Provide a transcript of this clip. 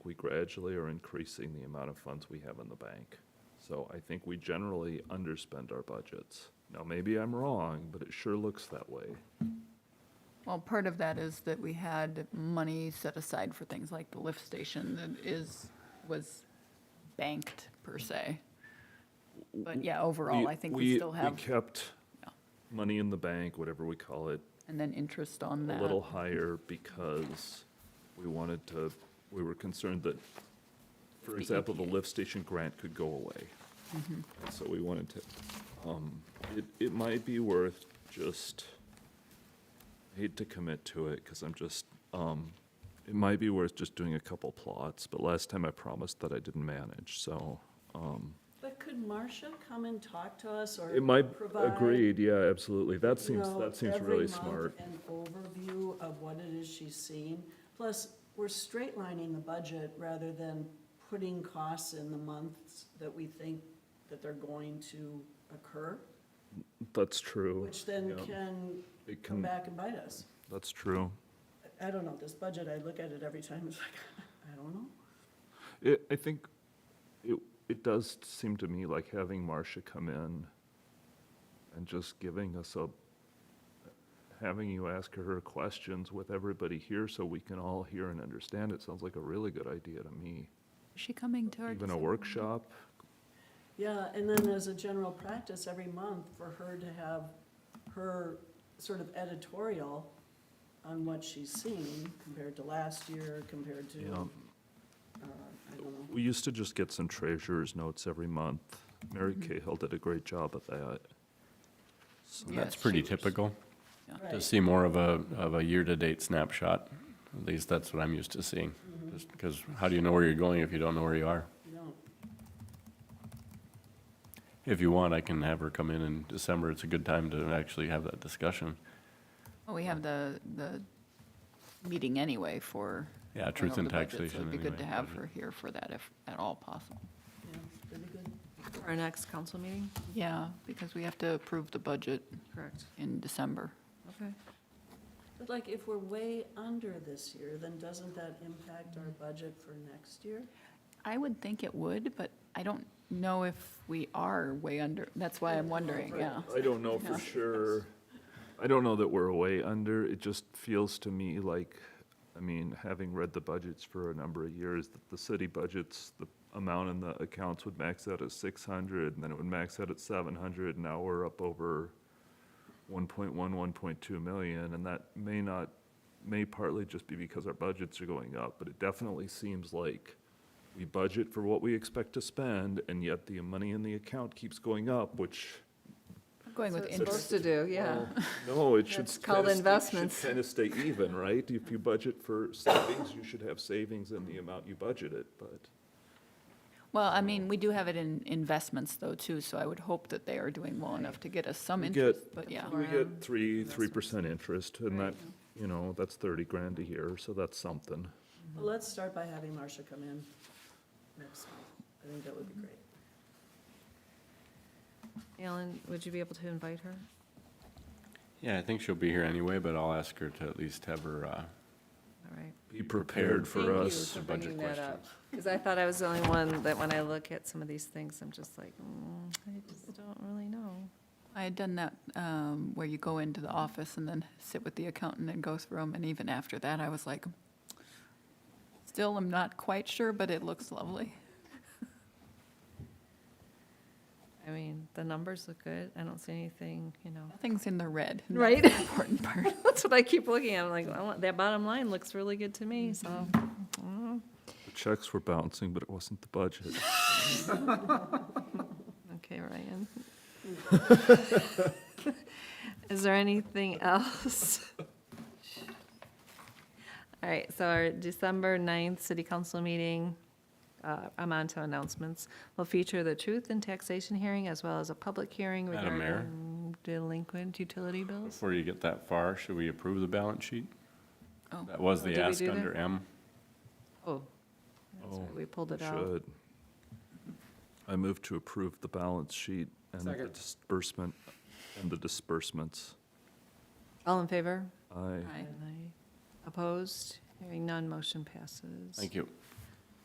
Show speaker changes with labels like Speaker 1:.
Speaker 1: we gradually are increasing the amount of funds we have in the bank. So I think we generally underspend our budgets. Now, maybe I'm wrong, but it sure looks that way.
Speaker 2: Well, part of that is that we had money set aside for things like the lift station that is, was banked per se. But yeah, overall, I think we still have,
Speaker 1: We kept
Speaker 2: Yeah.
Speaker 1: money in the bank, whatever we call it,
Speaker 2: and then interest on
Speaker 1: a
Speaker 2: that.
Speaker 1: little higher because we wanted to, we were concerned that, for example, the
Speaker 2: EPA.
Speaker 1: lift station grant could go away. So we wanted to, um, it, it might be worth just, I hate to commit to it because I'm just, um, it might be worth just doing a couple plots, but last time I promised that I didn't manage, so, um,
Speaker 3: But could Marcia come and talk to us or?
Speaker 1: it might,
Speaker 3: provide,
Speaker 1: agreed, yeah, absolutely. That
Speaker 3: you
Speaker 1: seems,
Speaker 3: know,
Speaker 1: that seems
Speaker 3: every
Speaker 1: really
Speaker 3: month
Speaker 1: smart.
Speaker 3: An overview of what it is she's seeing. Plus, we're straight lining the budget rather than putting costs in the months that we think that they're going to occur,
Speaker 1: That's true.
Speaker 3: which then
Speaker 1: Yeah.
Speaker 3: can
Speaker 1: It
Speaker 3: come
Speaker 1: can,
Speaker 3: back and bite us.
Speaker 1: that's true.
Speaker 3: I don't know, this budget, I look at it every time, it's like, I don't know.
Speaker 1: It, I think it, it does seem to me like having Marcia come in and just giving us a, having you ask her questions with everybody here so we can all hear and understand it sounds like a really good idea to me.
Speaker 2: Is she coming to our?
Speaker 1: Even a
Speaker 2: December
Speaker 1: workshop,
Speaker 3: Yeah, and then as a general practice, every month for her to have her sort of editorial on what she's seen compared to last year, compared
Speaker 1: you
Speaker 3: to,
Speaker 1: know.
Speaker 3: uh, I don't know.
Speaker 1: We used to just get some treasurer's notes every month. Mary Cahill did a great job at that. So-
Speaker 2: Yeah,
Speaker 4: That's pretty
Speaker 2: she was-
Speaker 4: typical, to
Speaker 3: Right.
Speaker 4: see more of a, of a year-to-date snapshot. At least that's what I'm used to seeing,
Speaker 2: Mm-hmm.
Speaker 4: just because how do you know where you're going if you don't know where you are?
Speaker 3: No,
Speaker 4: If you want, I can have her come in in December. It's a good time to actually have that discussion.
Speaker 2: Well, Oh, we have the, the meeting anyway for.
Speaker 4: Yeah,
Speaker 2: going
Speaker 4: truth
Speaker 2: over
Speaker 4: in
Speaker 2: the budget, so
Speaker 4: taxation.
Speaker 2: It'd be good
Speaker 4: anyway,
Speaker 2: to have
Speaker 4: budget.
Speaker 2: her here for that if at all possible.
Speaker 3: yeah, pretty good.
Speaker 5: For our next council meeting?
Speaker 2: Yeah, because we have to approve the budget
Speaker 5: Correct.
Speaker 2: in December.
Speaker 5: Okay.
Speaker 3: But like, if we're way under this year, then doesn't that impact our budget for next year?
Speaker 2: I would think it would, but I don't know if we are way under, that's why I'm wondering, yeah.
Speaker 1: I don't know
Speaker 2: Yeah.
Speaker 1: for sure. I don't know that we're way under. It just feels to me like, I mean, having read the budgets for a number of years, that the city budgets, the amount in the accounts would max out at six hundred, and then it would max out at seven hundred, and now we're up over 1.1, 1.2 million, and that may not, may partly just be because our budgets are going up, but it definitely seems like we budget for what we expect to spend, and yet the money in the account keeps going up, which
Speaker 2: I'm Going with
Speaker 5: So it's
Speaker 2: interest,
Speaker 5: supposed to do, yeah.
Speaker 1: well, Oh, No, it should.
Speaker 5: That's called investments.
Speaker 1: Kind of stay even, right? If you budget for savings, you should have savings in the amount you budgeted, but
Speaker 2: well, I mean, we do have it in investments though too, so I would hope that they are doing well enough to get us some
Speaker 1: We get-
Speaker 2: interest, but yeah.
Speaker 1: we
Speaker 5: Or, um,
Speaker 1: get three, three percent interest and that,
Speaker 5: Right.
Speaker 1: you know, that's thirty grand a year, so that's something.
Speaker 3: Well, let's start by having Marcia come in next month. I think that would be great.
Speaker 5: Alan, would you be able to invite her?
Speaker 4: Yeah, I think she'll be here anyway, but I'll ask her to at least have her, uh,
Speaker 5: All right.
Speaker 1: Be prepared for
Speaker 5: Thank
Speaker 1: us.
Speaker 5: you for
Speaker 4: budget
Speaker 5: bringing that up. Because I thought I was the only one that when I look at some of these things, I'm just like, mm, I just don't really know.
Speaker 2: I had done that um, where you go into the office and then sit with the accountant and go through them, and even after that, I was like, still am not quite sure, but it looks lovely.
Speaker 5: I mean, the numbers look good. I don't see anything, you know.
Speaker 2: Nothing's in the red. and that's
Speaker 5: Right.
Speaker 2: the Important part.
Speaker 5: That's what I keep looking at. I'm like, "Well, that bottom line looks really good to me, so. mm,
Speaker 1: The checks were bouncing, but it wasn't the budget.
Speaker 5: Okay, Ryan. Is there anything else? All right, so our December 9th city council meeting, uh, I'm on to announcements, will feature the truth and taxation hearing as well as a public hearing
Speaker 4: Madam Mayor?
Speaker 5: regarding delinquent utility bills.
Speaker 4: before you get that far, should we approve the balance sheet?
Speaker 2: Oh.
Speaker 4: That was
Speaker 5: Oh,
Speaker 4: the
Speaker 5: did we
Speaker 4: ask
Speaker 5: do that?
Speaker 4: under M.
Speaker 5: Oh, that's
Speaker 1: Oh,
Speaker 5: right, uh, we pulled
Speaker 1: We
Speaker 5: it out.
Speaker 1: should. I move to approve the balance sheet and the
Speaker 4: Second.
Speaker 1: disbursement, and the disbursements.
Speaker 5: All in favor?
Speaker 1: I,
Speaker 2: Aye.
Speaker 5: Aye. Opposed? Hearing none, motion passes.
Speaker 4: Thank you.